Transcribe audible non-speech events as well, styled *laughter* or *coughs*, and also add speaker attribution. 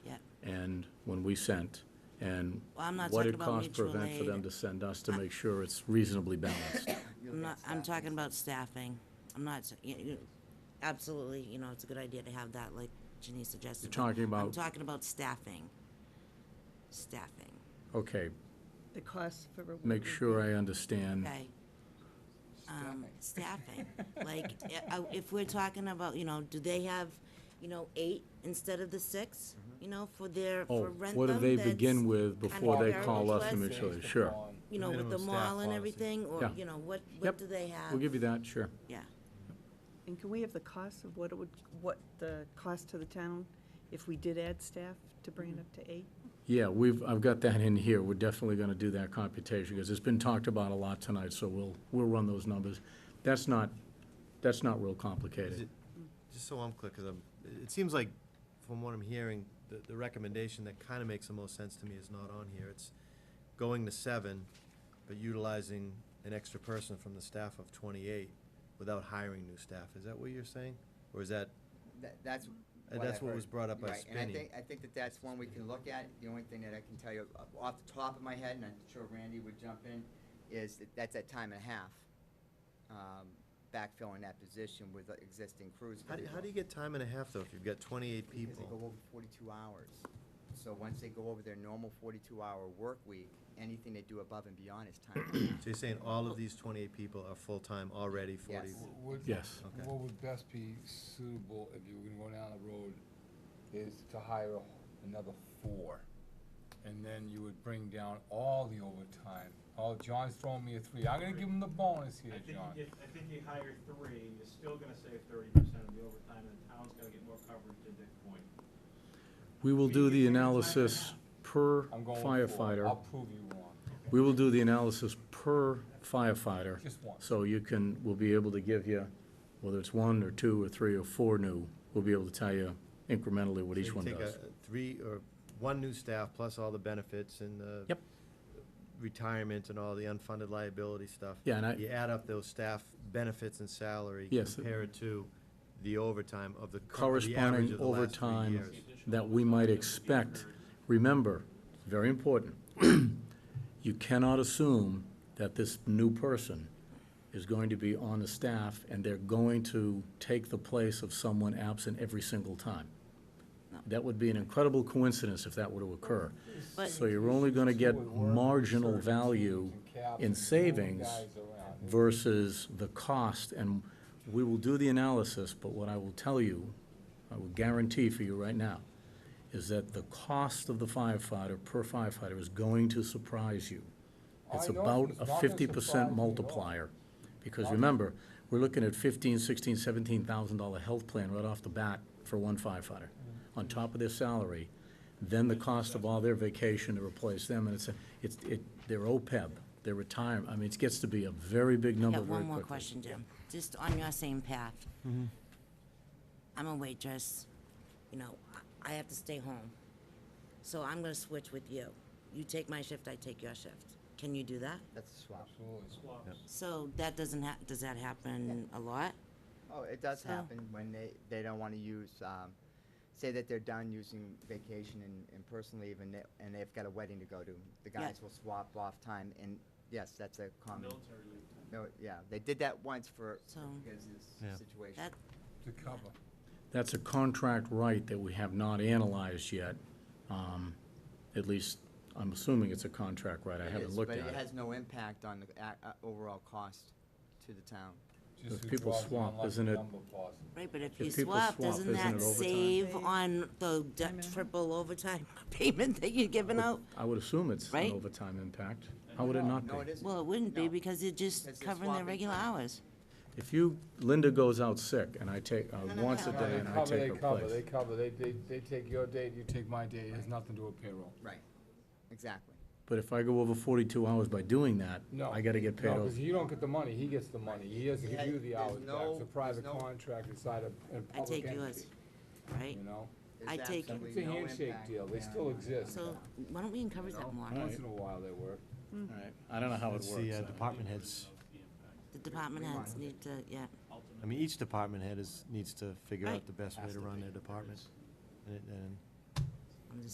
Speaker 1: send when we sent, and
Speaker 2: Well, I'm not
Speaker 1: what
Speaker 2: talking
Speaker 1: it
Speaker 2: about
Speaker 1: cost per
Speaker 2: mutual
Speaker 1: event for them
Speaker 2: aid.
Speaker 1: to send us to make sure it's reasonably balanced.
Speaker 2: *coughs* I'm not, I'm talking about staffing. I'm not, s- you- you- absolutely, you know, it's a good idea to have that, like Janice suggested. but
Speaker 1: talking
Speaker 2: I'm
Speaker 1: about-
Speaker 2: talking about staffing. Staffing,
Speaker 1: Okay,
Speaker 3: The cost for reward.
Speaker 1: make sure I understand.
Speaker 2: okay? Um, staffing, like, i- I- if we're talking about, you know, do they have, you know, eight instead of the six? You know, for their,
Speaker 1: Oh,
Speaker 2: for rent
Speaker 1: what do
Speaker 2: them,
Speaker 1: they
Speaker 2: that's
Speaker 1: begin with
Speaker 2: kind of
Speaker 1: before they
Speaker 2: very
Speaker 1: call us to
Speaker 2: request,
Speaker 1: make sure, sure.
Speaker 2: You know, with the mall and everything, or,
Speaker 1: Yeah.
Speaker 2: you know, what,
Speaker 1: Yep,
Speaker 2: what do they have?
Speaker 1: We'll give you that, sure.
Speaker 2: Yeah.
Speaker 3: And can we have the cost of what it would, what the cost to the town if we did add staff to bring it up to eight?
Speaker 1: Yeah, we've, I've got that in here. We're definitely gonna do that computation, because it's been talked about a lot tonight, so we'll, we'll run those numbers. That's not, that's not real
Speaker 4: Is
Speaker 1: complicated.
Speaker 4: it- Just so I'm clear, because I'm, it seems like, from what I'm hearing, the, the recommendation that kind of makes the most sense to me is not on here. It's going to seven, but utilizing an extra person from the staff of twenty-eight without hiring new staff. Is that what you're saying? Or is that,
Speaker 5: That, that's.
Speaker 4: Uh,
Speaker 5: I
Speaker 4: that's what was
Speaker 5: heard.
Speaker 4: brought up by
Speaker 5: Right, And I
Speaker 4: Spinny.
Speaker 5: think, I think that that's one we can look at. The only thing that I can tell you uh, off the top of my head, and I'm sure Randy would jump in, is that that's at time and a half. um, Backfilling that position with the existing crews.
Speaker 4: how do, how do you get time and a half, though, if you've got twenty-eight
Speaker 5: Because they go
Speaker 4: people?
Speaker 5: over forty-two hours. So once they go over their normal forty-two hour work week, anything they do above and beyond is time. and a half.
Speaker 4: So you're saying all of these twenty-eight people are full-time already, forty?
Speaker 5: Yes.
Speaker 6: Would-
Speaker 1: Yes.
Speaker 4: Okay.
Speaker 6: What would best be suitable if you were gonna go down the road is to hire a- another four. And then you would bring down all the overtime. Oh, John's throwing me a three. I'm gonna give him the bonus
Speaker 7: I
Speaker 6: here,
Speaker 7: think you
Speaker 6: John.
Speaker 7: get, I think you hire three, you're still gonna save thirty percent of the overtime, and the town's gonna get more coverage at that point.
Speaker 1: We will do the analysis per
Speaker 6: I'm going with four. I'll
Speaker 1: firefighter.
Speaker 6: prove you wrong.
Speaker 1: We will do the analysis per firefighter.
Speaker 6: Just one.
Speaker 1: So you can, we'll be able to give you, whether it's one or two or three or four new, we'll be able to tell you incrementally what
Speaker 4: So
Speaker 1: each
Speaker 4: you
Speaker 1: one
Speaker 4: take a-
Speaker 1: does.
Speaker 4: a Three, or one new staff, plus all the benefits and the.
Speaker 1: Yep.
Speaker 4: Retirement and all the unfunded liability stuff.
Speaker 1: Yeah, and I-
Speaker 4: You add up those staff benefits and salary.
Speaker 1: Yes.
Speaker 4: Compare it to the overtime of the. cor- the average
Speaker 1: Corresponding
Speaker 4: of the last three
Speaker 1: overtime
Speaker 4: years.
Speaker 1: that we might expect. Remember, very important, *clears throat* you cannot assume that this new person is going to be on the staff and they're going to take the place of someone absent every single time. That would be an incredible coincidence if that were to occur.
Speaker 2: But-
Speaker 1: So you're only gonna get marginal value in savings versus the cost, and we will do the analysis, but what I will tell you, I will guarantee for you right now, is that the cost of the firefighter per firefighter is going to surprise you. It's
Speaker 6: I know
Speaker 1: about
Speaker 6: it's
Speaker 1: a
Speaker 6: not gonna
Speaker 1: fifty
Speaker 6: surprise
Speaker 1: percent
Speaker 6: me at all.
Speaker 1: multiplier. Because remember, we're looking at fifteen, sixteen, seventeen thousand dollar health plan right off the bat for one firefighter, on top of their salary, then the cost of all their vacation to replace them, and it's, a- it's, it, their OPEB, their E retirement, I mean, it gets to be a very big
Speaker 2: I
Speaker 1: number
Speaker 2: got
Speaker 1: very
Speaker 2: one more
Speaker 1: quickly. Mm-hmm.
Speaker 2: question, Jim, just on your same path. I'm a waitress, you know, I- I have to stay home. So I'm gonna switch with you. You take my shift, I take your shift. Can you do that?
Speaker 5: That's a swap.
Speaker 6: Absolutely.
Speaker 2: So that doesn't hap, does that happen a lot?
Speaker 5: Oh, it does
Speaker 2: So-
Speaker 5: happen when they, they don't wanna use, um, say that they're done using vacation and, and personal leave and they, and they've got a wedding to go to. The
Speaker 2: Yeah.
Speaker 5: guys will swap off time and, yes, that's a common,
Speaker 7: Military leave.
Speaker 5: no, yeah, they did that once for,
Speaker 2: So-
Speaker 5: because of
Speaker 4: Yeah.
Speaker 5: this situation.
Speaker 2: That,
Speaker 6: To cover.
Speaker 1: That's a contract right that we have not analyzed yet, um, at least, I'm assuming it's a contract right, I
Speaker 5: It
Speaker 1: haven't
Speaker 5: is,
Speaker 1: looked at it.
Speaker 5: But it has no impact on the, a- uh, overall cost to the town.
Speaker 6: Just
Speaker 1: If
Speaker 6: who
Speaker 1: people
Speaker 6: draws the
Speaker 1: swap,
Speaker 6: unlucky
Speaker 1: isn't it-
Speaker 6: number possible.
Speaker 2: right, but if you
Speaker 1: people
Speaker 2: swap,
Speaker 1: swap,
Speaker 2: doesn't
Speaker 1: isn't
Speaker 2: that
Speaker 1: it overtime?
Speaker 2: save on the d- triple overtime *laughs* payment that you're giving out?
Speaker 1: I would assume it's an
Speaker 2: Right?
Speaker 1: overtime impact. How would it not
Speaker 5: No, it
Speaker 1: be?
Speaker 5: isn't.
Speaker 2: Well, it wouldn't be
Speaker 5: No.
Speaker 2: because you're
Speaker 5: Because
Speaker 2: just
Speaker 5: they're
Speaker 2: covering their
Speaker 5: swapping
Speaker 2: regular
Speaker 5: time.
Speaker 2: hours.
Speaker 1: If you, Linda goes out sick and I take, uh,
Speaker 5: no,
Speaker 1: once a
Speaker 5: no,
Speaker 1: day
Speaker 6: They
Speaker 1: and I
Speaker 6: cover,
Speaker 1: take
Speaker 6: they
Speaker 1: her
Speaker 6: cover, they
Speaker 1: place.
Speaker 6: cover. They, they, they take your date, you take my date. It has nothing to do with payroll.
Speaker 5: Right, exactly.
Speaker 1: But if I go over forty-two hours by doing that,
Speaker 6: No.
Speaker 1: I gotta get paid
Speaker 6: No,
Speaker 1: off.
Speaker 6: because you don't get the money, he gets the money, he doesn't give
Speaker 5: Yeah,
Speaker 6: you the
Speaker 5: there's
Speaker 6: hours back,
Speaker 5: no-
Speaker 6: it's a
Speaker 5: there's
Speaker 6: private
Speaker 5: no-
Speaker 6: contract inside a, a
Speaker 2: I
Speaker 6: public
Speaker 2: take
Speaker 6: entity,
Speaker 2: yours, right?
Speaker 6: you know?
Speaker 5: There's
Speaker 2: I take it.
Speaker 5: absolutely
Speaker 6: It's a
Speaker 5: no
Speaker 6: handshake
Speaker 5: impact
Speaker 6: deal, they
Speaker 5: there.
Speaker 6: still exist,
Speaker 2: So why don't we encourage that more?
Speaker 1: Alright.
Speaker 6: once in a while they work.
Speaker 1: All right. I don't know how it
Speaker 4: It's the uh,
Speaker 1: works.
Speaker 4: department heads,
Speaker 2: The department heads need to, yeah.
Speaker 4: I mean, each department head is, needs to figure
Speaker 2: Right.
Speaker 4: out the best way to run their department. And, it- and